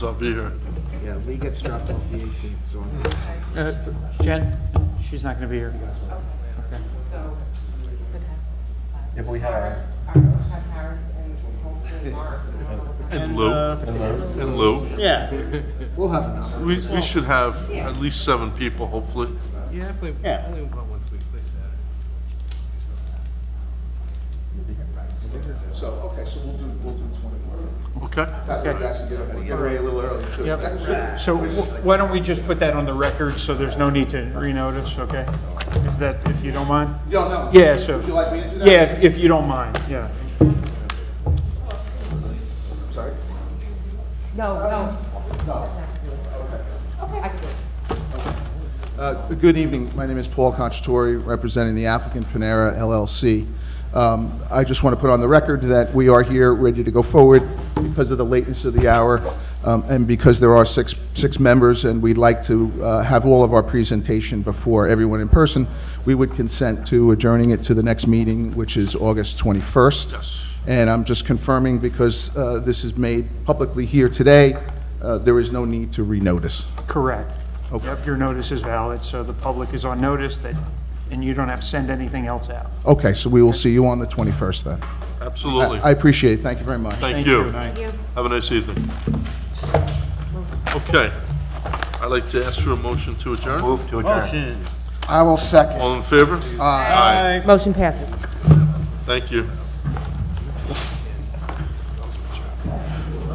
I'll be here. Yeah, Lee gets dropped off the 18th, so I'm Uh, Jen, she's not going to be here. Okay. If we have, And Lou, uh, and Lou. Yeah, we'll have enough. We, we should have at least seven people, hopefully. Yeah, but Yeah. only about once a week, please, Saturday. So, okay, so we'll do, we'll do twenty more. Okay? That way we actually get everybody get ready a little early too. yep. So wh- why don't we just put that on the record, so there's no need to renotice, okay? If that, if you don't mind? Yo, no. Yeah, so- Would you like me to do that? Yeah, if if you don't mind, yeah. Sorry? No, no. Uh, Good evening. My name is Paul Conchatori, representing the applicant Panera LLC. Um, I just want to put on the record that we are here, ready to go forward because of the lateness of the hour um, and because there are six, six members, and we'd like to uh, have all of our presentation before everyone in person. We would consent to adjourning it to the next meeting, which is August 21st. Yes. And I'm just confirming, because uh, this is made publicly here today, uh, there is no need to renotice. Correct. Okay. Yep, your notice is valid, so the public is on notice that, and you don't have to send anything else out. Okay, so we will see you on the 21st then. Absolutely. I I appreciate it, thank you very much. Thank you. Thank you. Have a nice evening. Okay. I'd like to ask for a motion to adjourn. move to adjourn. I will second. All in favor? Aye. Motion passes. Thank you.